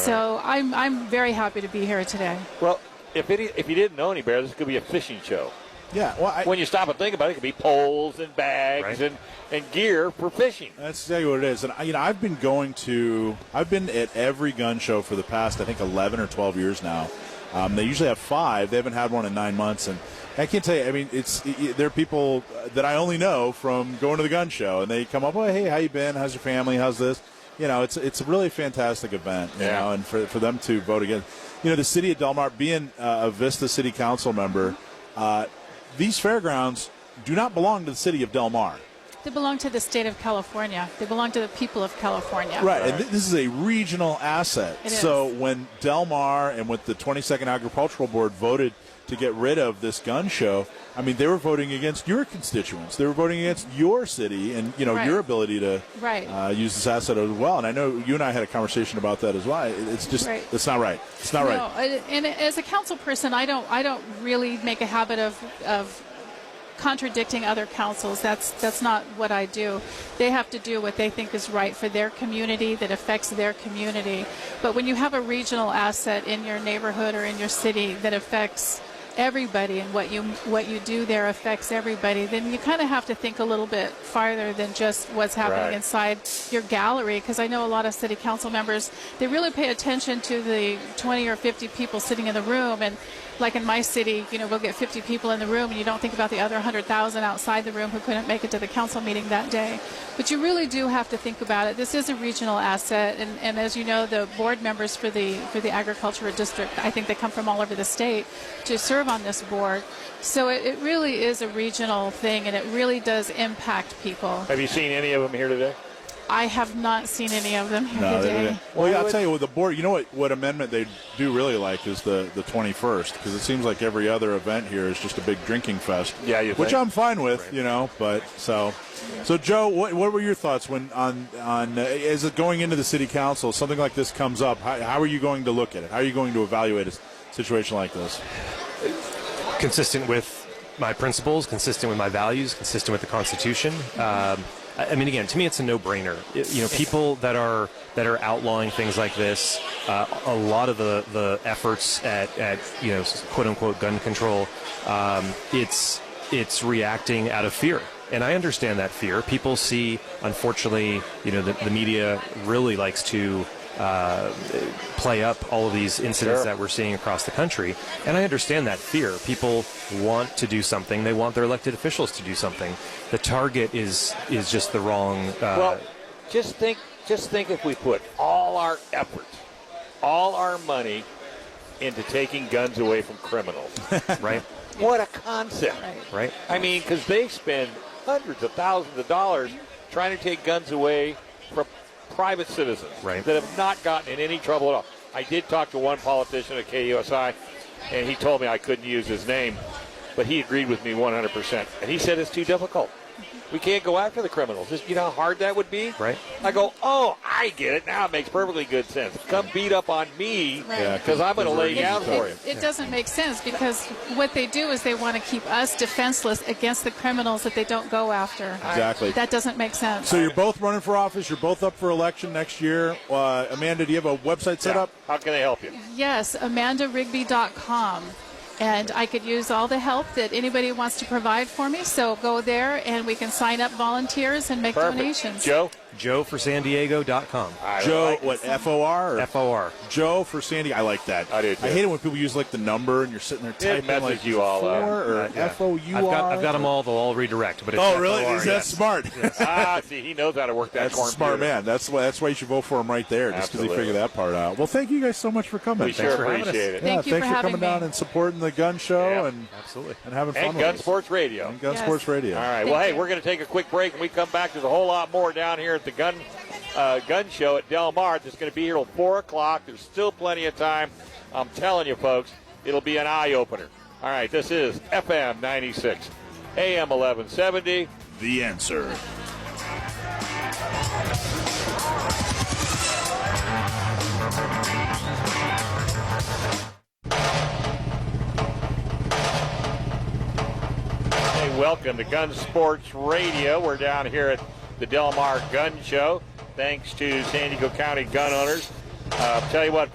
So I'm, I'm very happy to be here today. Well, if it, if you didn't know any better, this could be a fishing show. Yeah, well, I, When you stop and think about it, it could be poles and bags Right. and, and gear for fishing. that's exactly what it is. And I, you know, I've been going to, I've been at every gun show for the past, I think, eleven or twelve years now. Um, they usually have five. They haven't had one in nine months, and I can't tell you. I mean, it's y- y- there are people uh, that I only know from going to the gun show, and they come up, "Oh, hey, how you been? How's your family? How's this?" You know, it's it's a really fantastic event. You Yeah. know, and for for them to vote again, you know, the city of Del Mar being uh, a Vista City Council member, uh, these fairgrounds do not belong to the city of Del Mar. They belong to the state of California. They belong to the people of California. Right, and th- this is a regional asset. It so is. when Del Mar and with the 22nd Agricultural Board voted to get rid of this gun show, I mean they were voting against your constituents. They were voting against your city and you know Right. your ability to Right. uh, use this asset as well. And I know you and I had a conversation about that as well. It- It's just Right. it's not right. It's not No, right. I- and as a council person, I don't, I don't really make a habit of, of contradicting other councils. That's, that's not what I do. They have to do what they think is right for their community that affects their community. But when you have a regional asset in your neighborhood or in your city that affects everybody and what you, what you do there affects everybody, then you kind of have to think a little bit farther than just what's happening Right. inside inside your gallery because I know a lot of city council members they really pay attention to the 20 or 50 people sitting in the room and like in my city you know we'll get 50 people in the room and you don't think about the other 100,000 outside the room who couldn't make it to the council meeting that day but you really do have to think about it this is a regional asset and, and as you know the board members for the for the agricultural district I think they come from all over the state to serve on this board so it, it really is a regional thing and it really does impact people Have you seen any of them here today? I have not seen any of them here No, they- today. they- well, yeah, I'll tell you what. The board, you know what? What amendment they do really like is the the twenty first, because it seems like every other event here is just a big drinking fest. Yeah, you which think. I'm fine with, you know. But so, so Joe, what what were your thoughts when on on uh, as it going into the city council? Something like this comes up. How, how are you going to look at it? How are you going to evaluate a s- situation like this? consistent with my principles, consistent with my values, consistent with the Constitution. Um, I I mean, again, to me, it's a no-brainer. It- you know, people that are that are outlawing things like this, uh, a lot of the, the efforts at, at you know quote unquote gun control, um, it's it's reacting out of fear. And I understand that fear. People see, unfortunately, you know, the, the media really likes to uh, play up all of these incidents Sure. that we're seeing across the country. And I understand that fear. People want to do something. They want their elected officials to do something. The target is is just the wrong. Uh, Well, just think, just think if we put all our effort, all our money into taking guns away from criminals. right, what a concept! Right. right. I mean, because they spend hundreds of thousands of dollars trying to take guns away from private citizens Right. that have not gotten in any trouble at all. I did talk to one politician at KUSI, and he told me I couldn't use his name, but he agreed with me 100%. And he said it's too difficult. We can't go after the criminals. Just, you know how hard that would be? Right. I go, oh, I get it. Now it makes perfectly good sense. Come beat up on me Right. Yeah, because I'm going to lay It- down for you. it, it doesn't make sense because what they do is they want to keep us defenseless against the criminals that they don't go after. Exactly. That doesn't make sense. So you're both running for office. You're both up for election next year. Uh, Amanda, do you have a website set Yeah. up? How can I help you? yes, amandarigby.com. And I could use all the help that anybody wants to provide for me. So go there and we can sign up volunteers and make Perfect. donations. Joe? Joe for San Diego.com. I Joe, like it. what F O R? F O R. Joe for Sandy. I like that. I do, too. I hate it when people use like the number and you're sitting there typing messes like you all four up. or Yeah. F O U I've got, R. I've got them all. They'll all redirect. But it's Oh, really? FOR, Is yeah. that smart? ah, see, he knows how to work that That's a corn smart computer. man. That's why. That's why you should vote for him right there, just because he Absolutely. figured that part out. Well, thank you guys so much for coming. We Thanks sure for having us. appreciate it. yeah, Thank you thanks for coming having me. down and supporting the gun show Yeah. and Absolutely. and having fun And with Gun us. Sports Radio. and Gun Yes. Sports Radio. All right. Thank Well, hey, you. we're going to take a quick break, and we come back. There's a whole lot more down here at the gun uh, gun show at Del Mar. That's going to be here till four o'clock. There's still plenty of time. I'm telling you, folks, it'll be an eye opener. All right. This is FM 96, AM 1170. The answer. Hey, welcome to Gun Sports Radio. We're down here at the Del Mar Gun Show. Thanks to San Diego County gun owners. Uh, tell you what,